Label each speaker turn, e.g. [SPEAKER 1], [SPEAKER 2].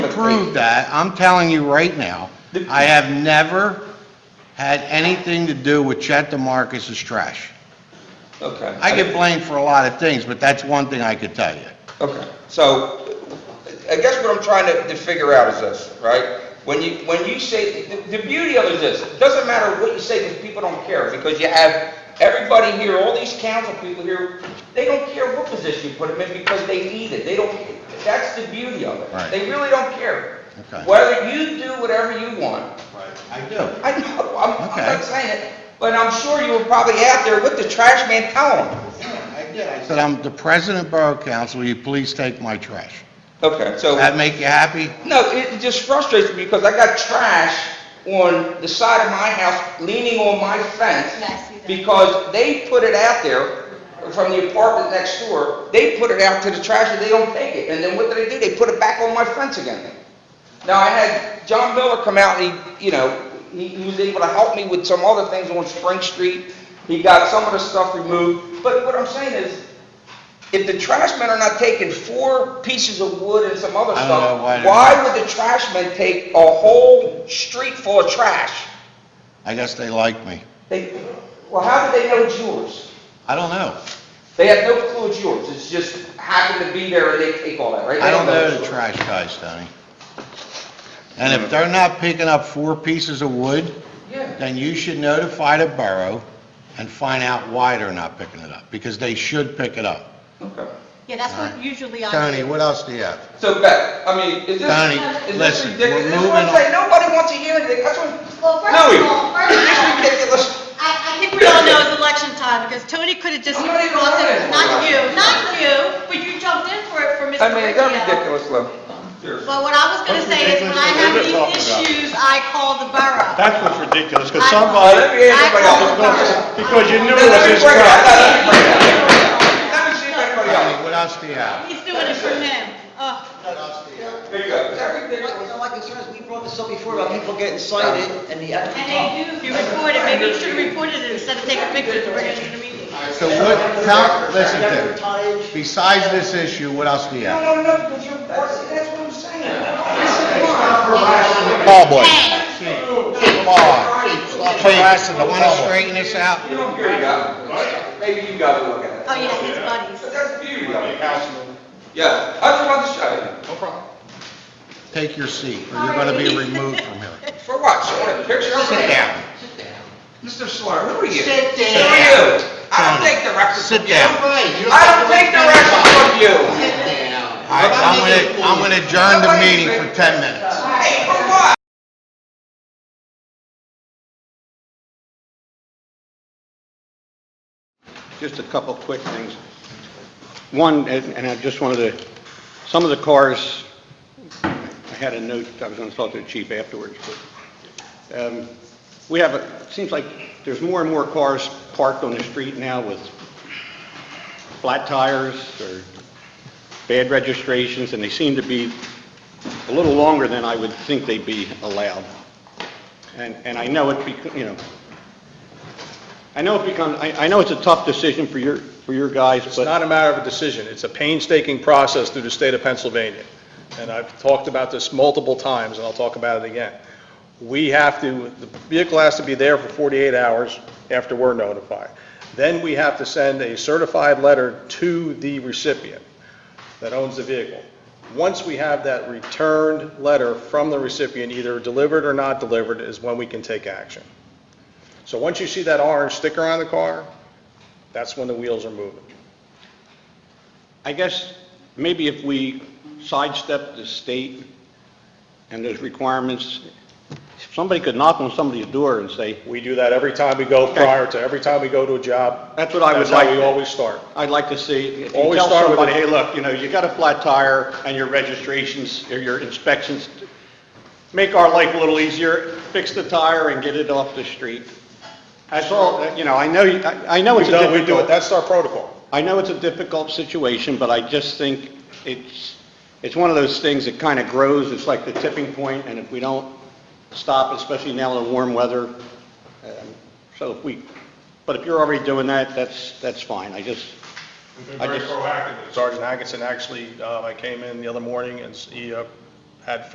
[SPEAKER 1] Hmm.
[SPEAKER 2] approve that, I'm telling you right now, I have never had anything to do with Chet DeMarcus's trash.
[SPEAKER 1] Okay.
[SPEAKER 2] I get blamed for a lot of things, but that's one thing I could tell you.
[SPEAKER 1] Okay, so, I guess what I'm trying to, to figure out is this, right? When you, when you say, the, the beauty of it is this, it doesn't matter what you say, because people don't care, because you have everybody here, all these council people here, they don't care what position you put them in, because they need it, they don't, that's the beauty of it.
[SPEAKER 2] Right.
[SPEAKER 1] They really don't care.
[SPEAKER 2] Okay.
[SPEAKER 1] Whether you do whatever you want,
[SPEAKER 2] I do.
[SPEAKER 1] I know, I'm, I'm
[SPEAKER 2] Okay.
[SPEAKER 1] not saying it, but I'm sure you were probably out there with the trash man telling them.
[SPEAKER 2] I did. I said, I'm the president of Borough Council, will you please take my trash?
[SPEAKER 1] Okay, so.
[SPEAKER 2] That make you happy?
[SPEAKER 1] No, it it just frustrates me because I got trash on the side of my house, leaning on my fence.
[SPEAKER 3] Yes, you do.
[SPEAKER 1] Because they put it out there from the apartment next door, they put it out to the trash and they don't take it. And then what do they do? They put it back on my fence again. Now, I had John Miller come out and he, you know, he, he was able to help me with some other things on Spring Street. He got some of the stuff removed. But what I'm saying is, if the trash men are not taking four pieces of wood and some other
[SPEAKER 2] I don't
[SPEAKER 1] stuff,
[SPEAKER 2] know why they're
[SPEAKER 1] why
[SPEAKER 2] not.
[SPEAKER 1] would the trash men take a whole street full of trash?
[SPEAKER 2] I guess they like me.
[SPEAKER 1] They, well, how did they know it's yours?
[SPEAKER 2] I don't know.
[SPEAKER 1] They have no clue it's yours. It's just happened to be there and they take all that, right? They
[SPEAKER 2] I don't know the
[SPEAKER 1] it's
[SPEAKER 2] trash guys, Tony. And if they're not picking up four pieces of wood,
[SPEAKER 1] yours. Yeah.
[SPEAKER 2] then you should notify the borough and find out why they're not picking it up, because they should pick it up.
[SPEAKER 1] Okay.
[SPEAKER 3] Yeah, that's what usually I
[SPEAKER 2] Tony,
[SPEAKER 3] do.
[SPEAKER 2] what else do you have?
[SPEAKER 1] So Beth, I mean, is this,
[SPEAKER 2] Donnie,
[SPEAKER 1] is this
[SPEAKER 2] listen,
[SPEAKER 1] ridiculous? This
[SPEAKER 2] we're
[SPEAKER 1] is
[SPEAKER 2] moving
[SPEAKER 1] what I'm
[SPEAKER 2] on.
[SPEAKER 1] saying. Nobody wants to hear anything. That's what,
[SPEAKER 3] Well, first
[SPEAKER 1] no,
[SPEAKER 3] of
[SPEAKER 1] you,
[SPEAKER 3] all, first
[SPEAKER 1] this is
[SPEAKER 3] of all,
[SPEAKER 1] ridiculous.
[SPEAKER 3] I, I think we all know it's election time, because Tony could have just
[SPEAKER 1] I'm not even
[SPEAKER 3] brought
[SPEAKER 1] running.
[SPEAKER 3] it, not you, not you, but you jumped in for it for Mr.
[SPEAKER 1] I mean, that's
[SPEAKER 3] Riccio.
[SPEAKER 1] ridiculous, Lou. Seriously.
[SPEAKER 3] But what I was gonna
[SPEAKER 4] What's
[SPEAKER 3] say is, when I have
[SPEAKER 4] ridiculous about
[SPEAKER 3] these
[SPEAKER 4] that?
[SPEAKER 3] issues, I call the borough.
[SPEAKER 4] That's what's ridiculous, because
[SPEAKER 3] I-
[SPEAKER 1] Let
[SPEAKER 4] somebody,
[SPEAKER 1] me hear everybody
[SPEAKER 3] I-
[SPEAKER 1] else.
[SPEAKER 4] because you knew
[SPEAKER 1] Let
[SPEAKER 4] it was
[SPEAKER 1] me
[SPEAKER 4] his
[SPEAKER 1] break it out.
[SPEAKER 4] guy.
[SPEAKER 1] Let me break it out. Let me see if anybody else.
[SPEAKER 2] Tony, what else do you have?
[SPEAKER 3] He's doing it for Oh, him. Ugh.
[SPEAKER 1] There you go. Is that ridiculous?
[SPEAKER 5] My my concern is, we brought this up before about people getting cited and the
[SPEAKER 3] And
[SPEAKER 5] applicant.
[SPEAKER 3] they do, if you report it, maybe you should have reported it instead of taking pictures and bringing it to the meeting.
[SPEAKER 2] So what, tell, listen, Dick,
[SPEAKER 5] Advertise.
[SPEAKER 2] besides this issue, what else do you have?
[SPEAKER 1] No, no, no, because you're, that's what I'm saying. This is why.
[SPEAKER 2] Ballboy.
[SPEAKER 3] Hey,
[SPEAKER 2] Come on. Please, want to straighten this out?
[SPEAKER 1] You don't hear, you got it. Maybe you got to look at it.
[SPEAKER 3] oh yeah, his buddies.
[SPEAKER 1] But that's the beauty of it. Yeah, I just wanted to show
[SPEAKER 2] Take your seat, or you're going to be removed from here.
[SPEAKER 1] you. For what? You want a picture?
[SPEAKER 2] Sit down.
[SPEAKER 1] Mr. Slaughter, who are you?
[SPEAKER 5] Sit
[SPEAKER 1] Who are
[SPEAKER 5] down.
[SPEAKER 1] you? I don't take directions
[SPEAKER 2] Sit
[SPEAKER 1] from you.
[SPEAKER 2] down.
[SPEAKER 1] I don't take directions from you.
[SPEAKER 5] Sit down.
[SPEAKER 2] All right, I'm going to, I'm going to adjourn the meeting for 10 minutes.
[SPEAKER 1] Hey, for what?
[SPEAKER 6] Just a couple quick things. One, and and I just wanted to, some of the cars, I had a note, I was going to talk to the chief afterwards, but um, we have, a- it seems like there's more and more cars parked on the street now with flat tires or bad registrations, and they seem to be a little longer than I would think they'd be allowed. And and I know it, bec- you know, I know it become, I I know it's a tough decision for your, for your guys,
[SPEAKER 4] It's
[SPEAKER 6] but...
[SPEAKER 4] not a matter of a decision, it's a painstaking process through the state of Pennsylvania. And I've talked about this multiple times, and I'll talk about it again. We have to, the vehicle has to be there for 48 hours after we're notified. Then we have to send a certified letter to the recipient that owns the vehicle. Once we have that returned letter from the recipient, either delivered or not delivered, is when we can take action. So once you see that orange sticker on the car, that's when the wheels are moving.
[SPEAKER 6] I guess maybe if we sidestep the state and those requirements, if somebody could knock on somebody's door and say,
[SPEAKER 4] We do that every time we go prior to, every time we go to a job.
[SPEAKER 6] That's what I would
[SPEAKER 4] That's how
[SPEAKER 6] like.
[SPEAKER 4] we always start.
[SPEAKER 6] I'd like to see, if you
[SPEAKER 4] Always
[SPEAKER 6] tell
[SPEAKER 4] start with
[SPEAKER 6] somebody, hey,
[SPEAKER 4] a-
[SPEAKER 6] look, you know, you got a flat tire and your registrations, or your inspections, make our life a little easier, fix the tire and get it off the street. That's all, you know, I know, you- I I know
[SPEAKER 4] We
[SPEAKER 6] it's a
[SPEAKER 4] do,
[SPEAKER 6] difficult...
[SPEAKER 4] we do it, that's our protocol.
[SPEAKER 6] I know it's a difficult situation, but I just think it's, it's one of those things that kind of grows, it's like the tipping point, and if we don't stop, especially now in the warm weather, um, so if we, but if you're already doing that, that's, that's fine, I just, I just...
[SPEAKER 4] Sergeant Atkinson actually, uh, I came in the other morning and s- he uh, had